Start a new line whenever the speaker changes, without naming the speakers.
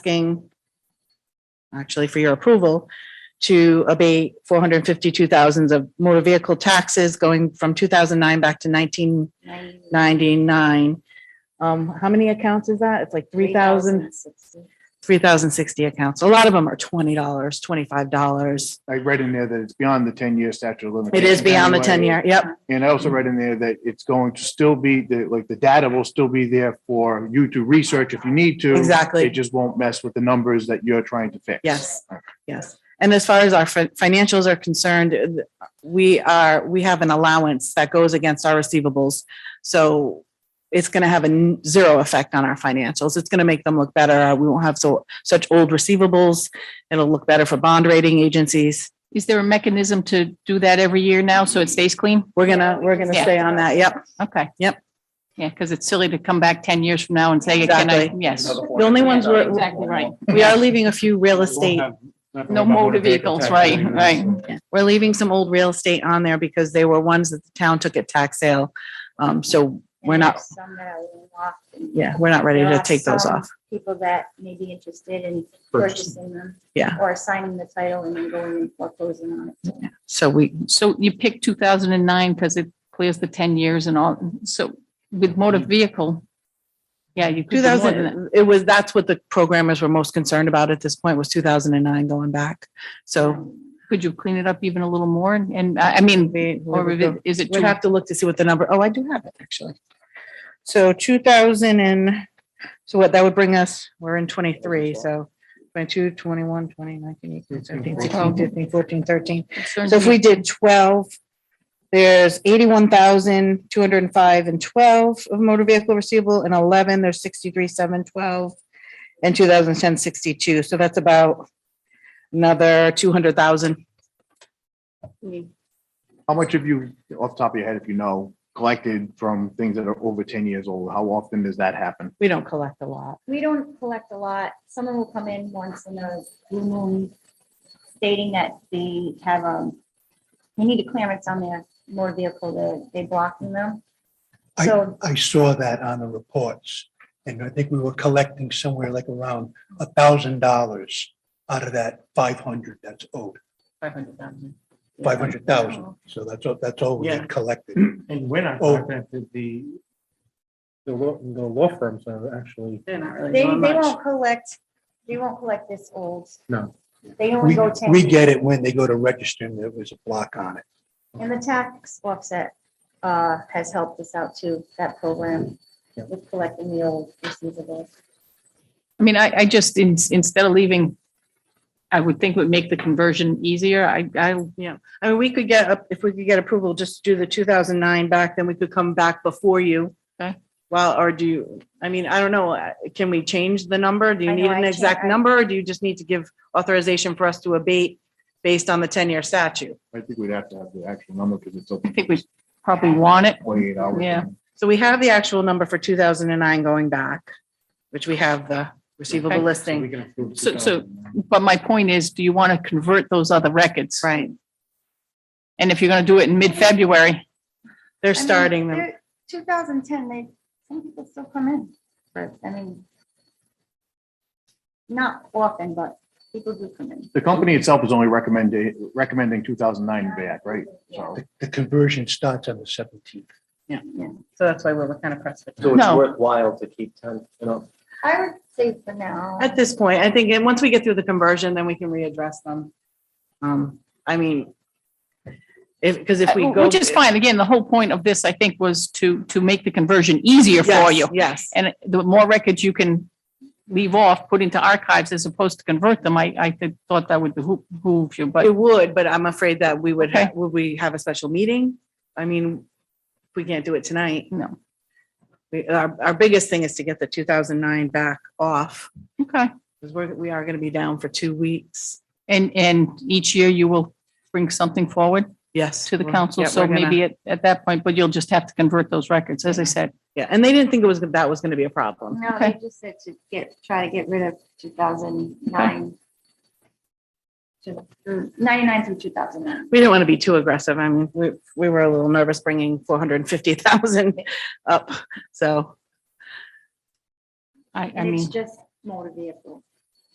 asking actually for your approval to abate four hundred and fifty-two thousands of motor vehicle taxes going from two thousand nine back to nineteen ninety-nine. Um, how many accounts is that? It's like three thousand, three thousand sixty accounts. A lot of them are twenty dollars, twenty-five dollars.
I read in there that it's beyond the ten-year statute of
It
limitations.
is beyond the
anyway.
ten-year. Yep.
And I also read in there that it's going to still be, the like, the data will still be there for you to research if you need to.
Exactly.
It just won't mess with the numbers that you're trying to fix.
Yes, yes. And as far as our fin- financials are concerned, uh, we are, we have an allowance that goes against our receivables. So it's going to have a n- zero effect on our financials. It's going to make them look better. Uh, We won't have so, such old receivables. It'll look better for bond rating agencies.
Is there a mechanism to do that every year now so it stays clean?
We're gonna, we're gonna
Yeah.
stay on that. Yep.
Okay.
Yep.
Yeah, because it's silly to come back 10 years from now and say, can I,
Exactly.
yes.
The only ones we're,
Exactly right.
we are leaving a few real estate
No motor vehicles, right, right.
We're leaving some old real estate on there because they were ones that the town took at tax sale. Um, so we're not, yeah, we're not ready
There
to
are
take those
some
off.
People that may be interested in purchasing them.
Yeah.
Or assigning the title and then going and foreclosing on it.
So we,
So you picked 2009 because it clears the 10 years and all. So with motor vehicle, yeah, you could
two
do more than that.
thousand, it was, that's what the programmers were most concerned about at this point was two thousand and nine going back. So
Could you clean it up even a little more? And- And uh, I I mean,
we, we
or
would
if
go-
it- is it
we'd
too?
have to look to see what the number, oh, I do have it actually. So two thousand and, so what that would bring us, we're in twenty-three, so 22, 21, 20, 19, 18, 17, 16, 15, 14, 13. So if we did twelve, there's eighty-one thousand, two hundred and five and twelve of motor vehicle receivable and eleven, there's sixty-three, seven, twelve. And 2010, 62. so that's about another two hundred thousand.
How much have you, off the top of your head, if you know, collected from things that are over ten years old? How often does that happen?
We don't collect a lot.
We don't collect a lot. Someone will come in once in a blue moon stating that they have, um, they need a clearance on their motor vehicle, they, they blocking them.
I,
So,
I saw that on the reports, and I think we were collecting somewhere like around a thousand dollars out of that five hundred that's owed,
500,000.
five hundred thousand. So that's, all. that's all we
Yeah.
had collected.
And when I
Oh.
contacted the, the law, the law firms are actually,
They're not
they, they won't collect, they won't collect this old.
No.
They only
We,
go ten.
we get it when they go to register and there was a block on it.
And the tax offset uh, has helped us out too, that program with collecting the old receivables.
I mean, I, I just, in- instead of leaving, I would think would make the conversion easier. I, I,
I mean, we could get, a- if we could get approval, just do the two thousand nine back, then we could come back before you.
Okay.
Well, or do you, I mean, I don't know, uh, can we change the number? Do you
I know,
need
I
an
can't-
exact
I-
number? Or do you just need to give authorization for us to abate based on the ten-year statute?
I think we'd have to have the actual number because it's up
I think we probably want it.
twenty-eight hours.
Yeah.
So we have the actual number for two thousand and nine going back, which we have the receivable
Okay.
so we
listing,
can approve
So- so-
2009.
But my point is, do you want to convert those other records?
right?
And if you're going to do it in mid-February,
They're starting them.
Two thousand ten, they, some people still come in, but I mean, not often, but people do come in.
The company itself is only recommending, recommending two thousand nine back, right? So.
The- The conversion starts on the seventeenth.
So that's why we're kind of pressed. for time.
So it's
No.
worthwhile to keep ten, you know,
I would say for now.
At this point, I think, and once we get through the conversion, then we can readdress them. Um, I mean, if, because if we go.
Uh, which is fine. Again, the whole point of this, I think, was to, to make the conversion easier for
Yes,
you.
Yes,
And the more records you can leave off, put into archives as opposed to convert them, I, I did- thought that would behoo- behoove you, but
it would, but I'm afraid that we would, ha-
Okay.
would we have a special meeting? I mean, we can't do it tonight.
no.
We, our, our biggest thing is to get the two thousand nine back off,
Okay.
because we're, we are gonna be down for two weeks.
And, and each year you will bring something forward
Yes.
to the
we're-
council.
yeah,
So
we're gonna-
maybe at, at that point, but you'll just have to convert those records, as I said.
Yeah, and they didn't think it was, that was gonna be a problem.
No,
Okay.
they just said to get, try to get rid of two thousand nine. Ninety-nine through two thousand nine.
We didn't want to be too aggressive. I mean, we, we were a little nervous bringing four hundred and fifty thousand up, so.
I, I
And it's
mean,
just motor vehicle.